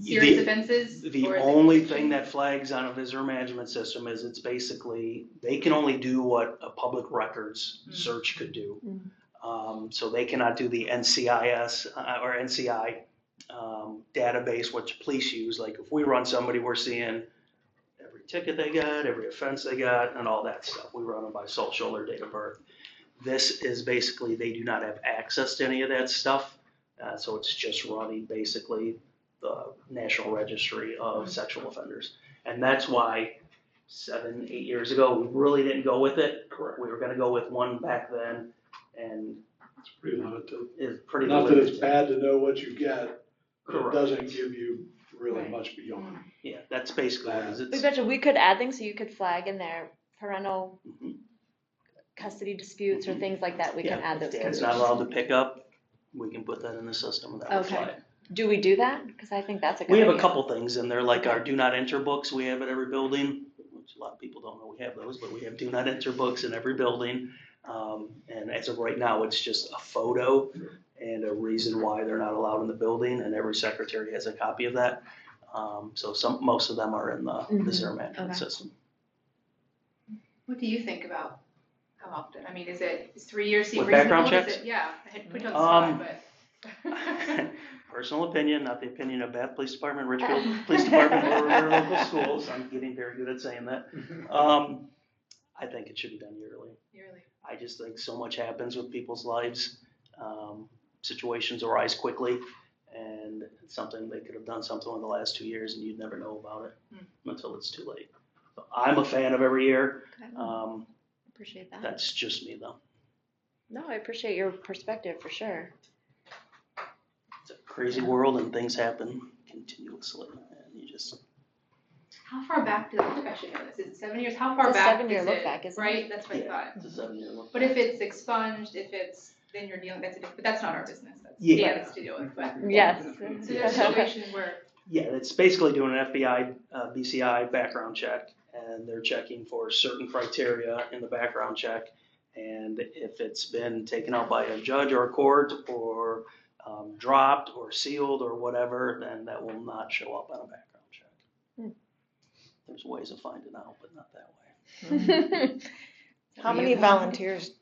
serious The- offenses? The or is it only conviction? thing that flags on a visitor management system is it's basically, they can only do what a public records Mm. search could do. Mm. Um, so they cannot do the NCIS uh, or NCI um, database, which police use. Like if we run somebody, we're seeing every ticket they got, every offense they got, and all that stuff. We run them by social or date of birth. This is basically, they do not have access to any of that stuff. Uh, so it's just running basically the National Registry of Sexual Offenders. And that's why seven, eight years ago, we really didn't go with it. Correct. We were gonna go with one back then and It's pretty limited. it's pretty Not limited. that it's bad to know what you get, but it Correct. doesn't give you really Right. much beyond. Yeah, that's basically what it is. We It's- betcha, we could add things, so you could flag in there parental Mhm. custody disputes or things like that, we can Yeah, add if those. Dad's categories. not allowed to pick up, we can put that in the system and that will Okay. fly. Do we do that? Cause I think that's a good We have a idea. couple things in there, like our do not enter books we have at every building, which a lot of people don't know we have those, but we have do not enter books in every building. Um, and as of right now, it's just a photo and a reason why they're not allowed in the building, and every secretary has a copy of that. Um, so some, most of them are in the Mhm, visitor management okay. system. What do you think about how often? I mean, is it is three years seem With reasonable? background Is checks? it- Yeah, I had put you on Um, the spot, Personal opinion, not the opinion of Bath Police Department, Richfield Police Department, or their local schools, I'm getting very good at saying that. Um, I think it should be done yearly. but yearly. I just think so much happens with people's lives. Um, situations arise quickly, and it's something they could have done something in the last two years, and you'd never know about it Hmm. until it's too late. So I'm a fan of every year. Okay, Um, Appreciate that. that's just me, though. No, I appreciate your perspective for sure. It's a crazy world, and things happen continuously, and you just How far back does the discussion go? Is it seven years? How far It's a back seven-year is look it? back, isn't it? Right, that's what I Yeah. thought. it's a seven-year look. But if it's expunged, if it's, then you're dealing, that's a different, but that's not our business. That's Yeah. Dan's to deal with, but. Yes. So there's situations where Yeah, it's basically doing an FBI, uh, BCI background check, and they're checking for certain criteria in the background check. And if it's been taken out by a judge or a court or um, dropped or sealed or whatever, then that will not show up on a background check. Hmm. There's ways of finding out, but not that way. How many volunteers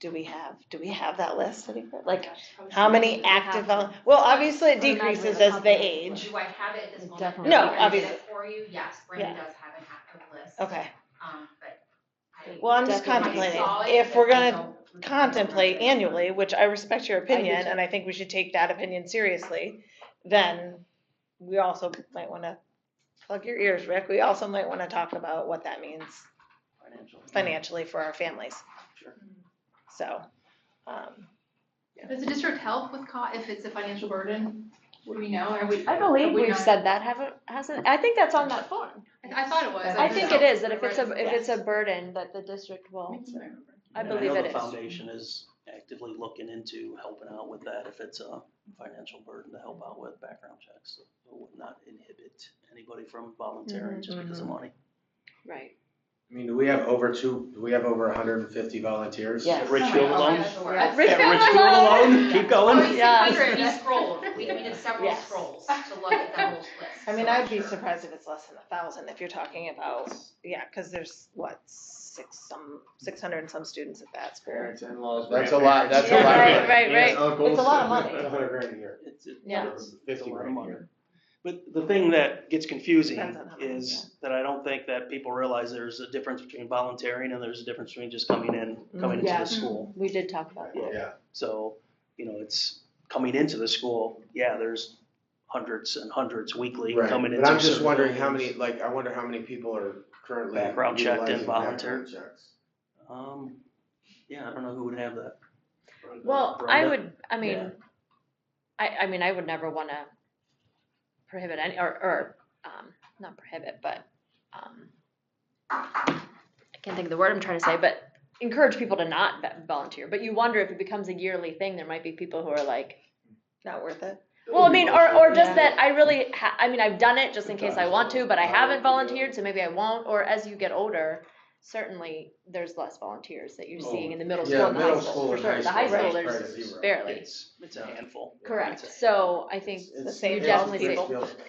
do we have? Do we have that list? City Clerk? Like, Gosh, I was how many thinking we have- active, vol- well, obviously it Or not decreases really as they population. age. Do I have it at this moment? Definitely. No, I can get it obviously. For you, yes, Brandon Yeah. does have an active list. Okay, Um, but I. well, I'm just Definitely. contemplating. Saw it, If but we're I gonna don't remember. contemplate annually, which I respect your opinion, too. and I think we should take that opinion seriously, then we also might wanna plug your ears, Rick, we also might wanna talk about what that means Financial. financially for our families. Sure. So, um, Does the district help with co, if it's a financial burden? What do we know? Are we? I have believe we we've not- said that, haven't, hasn't, I think that's on that form. I I thought it was. I think it is, that if it's a, Right. if it's a burden, that the district will, That's what I remember. I And believe know it the is. foundation is actively looking into helping out with that if it's a financial burden to help out with background checks. So It would not inhibit anybody from volunteering just because of Mm-hmm. money. Right. I mean, do we have over two, do we have over hundred and fifty volunteers? Yes. At Richfield Oh, alone, that's the word. Rich- at Richfield alone, keep Oh, going. you Yeah. see, we- We scrolled, we, we did several Yes. scrolls to look at the whole list. I mean, so I'm I'd be sure. surprised if it's less than a thousand, if you're talking about, yeah, cause there's what, six, some, six hundred and some students at that school. Parents, in-laws, That's a lot, that's a Yeah, lot. right, right, Aunts, right. uncles. It's a lot of money. A hundred grand a year. It's- it's- Yeah. it's- it's a Fifty lot grand of a money. year. But the thing that gets confusing Depends on how many, is that I don't think that people realize there's a difference between volunteering and there's a difference between just coming in, coming into Mm-hmm. Yeah. the school. We did talk about that. Yeah, So, you know, it's coming into the school, yeah, there's hundreds and hundreds weekly right. coming into. But I'm just certain wondering how many, buildings. like, I wonder how many people are currently. Background checked and utilizing background volunteer. checks. Um, yeah, I don't know who would have that. Well, I Rhonda? would, I Yeah. mean, I, I mean, I would never wanna prohibit any, or, or, um, not prohibit, but, um, I can't think of the word I'm trying to say, but encourage people to not va- volunteer, but you wonder if it becomes a yearly thing, there might be people who are like, not worth it. Well, I mean, or, or just that I really, ha- I mean, I've done it just in case I want to, but I haven't volunteered, so maybe I won't, or as you get older, certainly, there's less volunteers that you're seeing in the middle school Oh, Yeah, and the high middle school, school for and sure, high the high school. school, right, there's it's zero. barely. It's, it's a handful. Correct, It's a- so I think It's- you it's- definitely it's- say. it's-